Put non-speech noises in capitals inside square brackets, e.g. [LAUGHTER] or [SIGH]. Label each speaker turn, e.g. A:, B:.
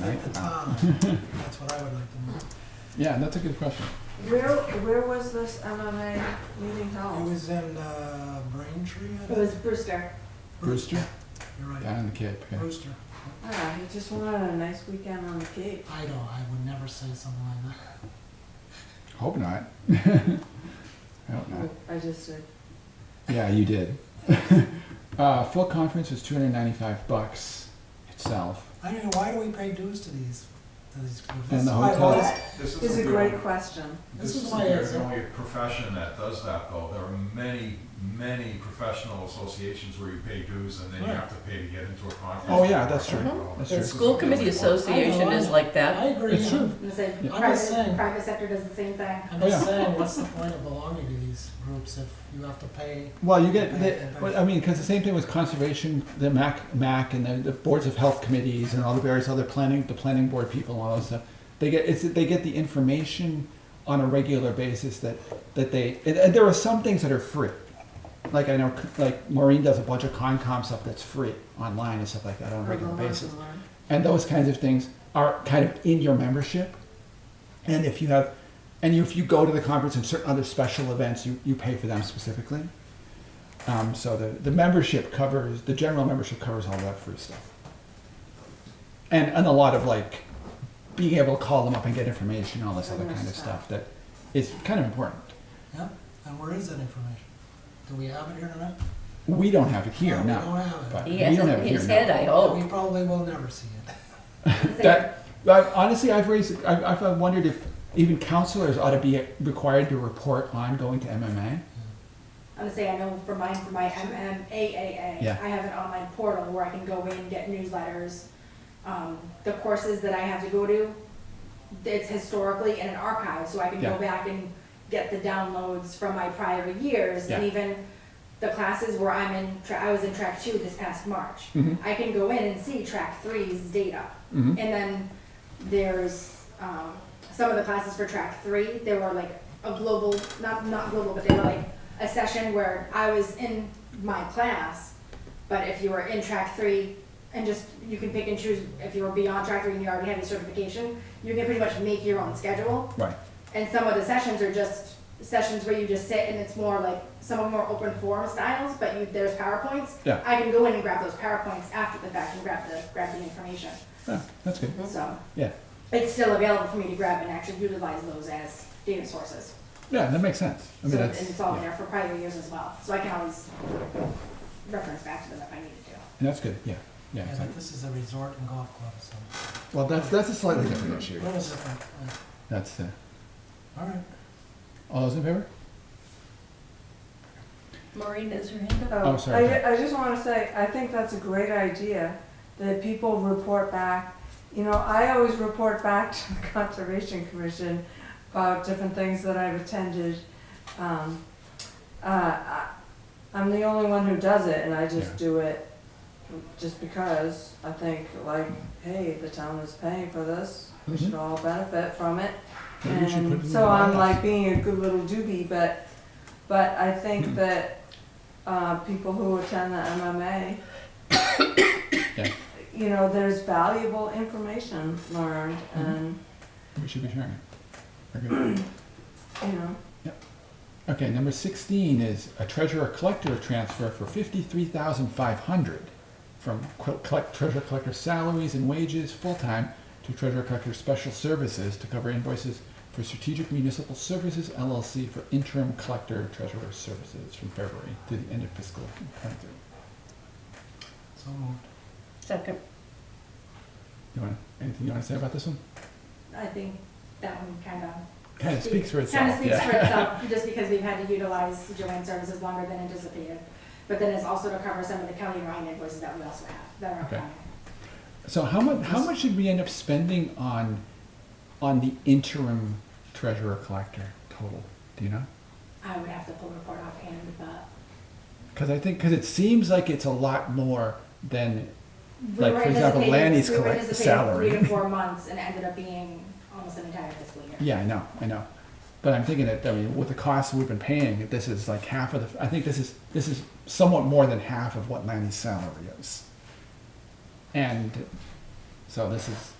A: Right? [LAUGHS]
B: Ah, That's what I would like to know.
A: Yeah, that's a good question.
C: Where, where was this MMA meeting
B: It
C: held?
B: was in uh, Braintree, I
C: Oh. It
B: think.
C: was Brewster.
A: Brewster?
B: You're right,
A: Down in the Cape, yeah.
B: Brewster.
C: Ah, he just wanted a nice weekend on the Cape.
B: I don't, I would never say something like that.
A: Hope not. [LAUGHS] I hope not.
C: I just did.
A: Yeah, you did. [LAUGHS] uh, full conference is 295 bucks itself.
B: I don't know, why do we pay dues to these, to these? groups? This
A: And the
B: is why I
A: hotel-
B: always-
D: This
C: It's
D: is
C: a
D: the
C: great question.
B: This is
D: This
B: why
D: isn't
B: it's-
D: the only profession that does that, though. There are many, many professional associations where you pay dues and then you
B: Right.
D: have to pay to get into a conference.
A: Oh, yeah, that's true. That's
E: The
A: true.
E: school committee association is like
B: I
E: that.
B: agree.
A: It's true.
F: I'm saying,
A: Yeah.
B: I'm just
F: private,
B: saying.
F: private sector does the same thing.
B: I'm
A: Oh, yeah.
B: just saying, what's the point of belonging to these groups if you have to pay?
A: Well, you get, the, well, I mean, because the same thing with conservation, the MAC, MAC, and the, the boards of health committees, and all the various other planning, the planning board people, and all that stuff. They get it's they get the information on a regular basis that that they and, and there are some things that are free. Like I know, like Maureen does a bunch of Concom stuff that's free online and stuff like that on a regular basis. and those kinds of things are kind of in your membership. And if you have, and if you go to the conference and certain other special events, you, you pay for them specifically. Um, so the, the membership covers, the general membership covers all that free stuff. And, and a lot of like being able to call them up and get information, all this other kind of stuff that is kind of important.
B: Yeah, and where is that information? Do we have it here tonight?
A: We don't have it here
B: No, We
A: now.
B: don't have
A: But
B: it.
E: He
A: we
E: has
A: don't
E: it
A: have
E: in
A: it here
E: his
A: now.
E: head, I
B: We
E: hope.
B: probably will never see it.
F: I'm saying,
A: That, I, honestly, I've raised, I've, I've wondered if even counselors ought to be required to report on going to MMA.
F: I'm gonna say, I know for mine, for my MMAAA,
A: Yeah.
F: I have an online portal where I can go in, get newsletters. Um, the courses that I have to go to, it's historically in an archive, so I can
A: Yeah.
F: go back and get the downloads from my prior years. And
A: Yeah.
F: even the classes where I'm in, tra- I was in track two this past March.
A: Mhm.
F: I can go in and see track three's data.
A: Mhm.
F: And then there's um, some of the classes for track three. They were like a global, not not global, but they were like a session where I was in my class. But if you were in track three, and just you can pick and choose if you were beyond track three and you already have your certification, you can pretty much make your own schedule.
A: Right.
F: And some of the sessions are just sessions where you just sit and it's more like some of them are open forum styles, but you, there's PowerPoints.
A: Yeah.
F: I can go in and grab those PowerPoints after the fact and grab the grab the information.
A: Yeah, that's good.
F: So
A: Yeah.
F: it's still available for me to grab and actually utilize those as data sources.
A: Yeah, that makes sense. I mean,
F: so,
A: that's,
F: and it's all
A: yeah,
F: there for prior years as well. So I can always reference back to them if I needed to.
A: and that's good. Yeah. Yeah.
B: Yeah,
A: exactly.
B: but this is a resort and golf club, so.
A: Well, that's, that's a slightly different issue.
B: What is it? Uh,
A: That's, uh,
B: All right.
A: all those in favor?
E: Maureen is her hand up.
A: Oh, sorry.
C: I, I just wanna say, I think that's a great idea, that people report back. You know, I always report back to the [LAUGHS] Conservation Commission about different things that I've attended. Um, uh, I, I'm the only one who does it, and I just
A: Yeah.
C: do it just because I think like, hey, the town is paying for this, we
A: Mm-hmm.
C: should all benefit from it.
A: Maybe we should put it
C: And
A: in
C: so
A: the
C: I'm
A: bylaws.
C: like being a good little doobie, but, but I
A: Hmm.
C: think that, uh, people who attend the MMA,
A: [COUGHS] Yeah.
C: you know, there's valuable information learned
A: Hmm.
C: and,
A: We should be sharing it. Very good.
C: you know,
A: Okay, number 16 is a treasurer collector transfer for 53500 from qu- collect, treasurer collector salaries and wages full time to treasurer collector special services to cover invoices for Strategic Municipal Services LLC for interim collector treasurer services from February to the end of fiscal 23.
B: So moved.
E: Second.
A: You want anything you want to say about this one?
F: I think that one kind of
A: Kind of speaks for itself.
F: Kind of speaks
A: yeah.
F: for
A: [LAUGHS]
F: itself, just because we've had to utilize Joanne's services longer than anticipated. But then it's also to cover some of the county Ryan invoices that we also have that are
A: Okay.
F: upcoming.
A: So how much how much should we end up spending on on the interim treasurer collector total? Do you know?
F: I would have to pull the report offhand, but
A: Because I think because it seems like it's a lot more than
F: we
A: Like,
F: were
A: for example,
F: anticipating-
A: Lanny's
F: we were
A: collect-
F: anticipating Three
A: salary.
F: to
A: [LAUGHS]
F: four months and it ended up being almost an entire fiscal year.
A: yeah I know I know, but I'm thinking that I mean with the costs we've been paying, this is like half of the I think this is this is somewhat more than half of what Lanny's salary is, and so this is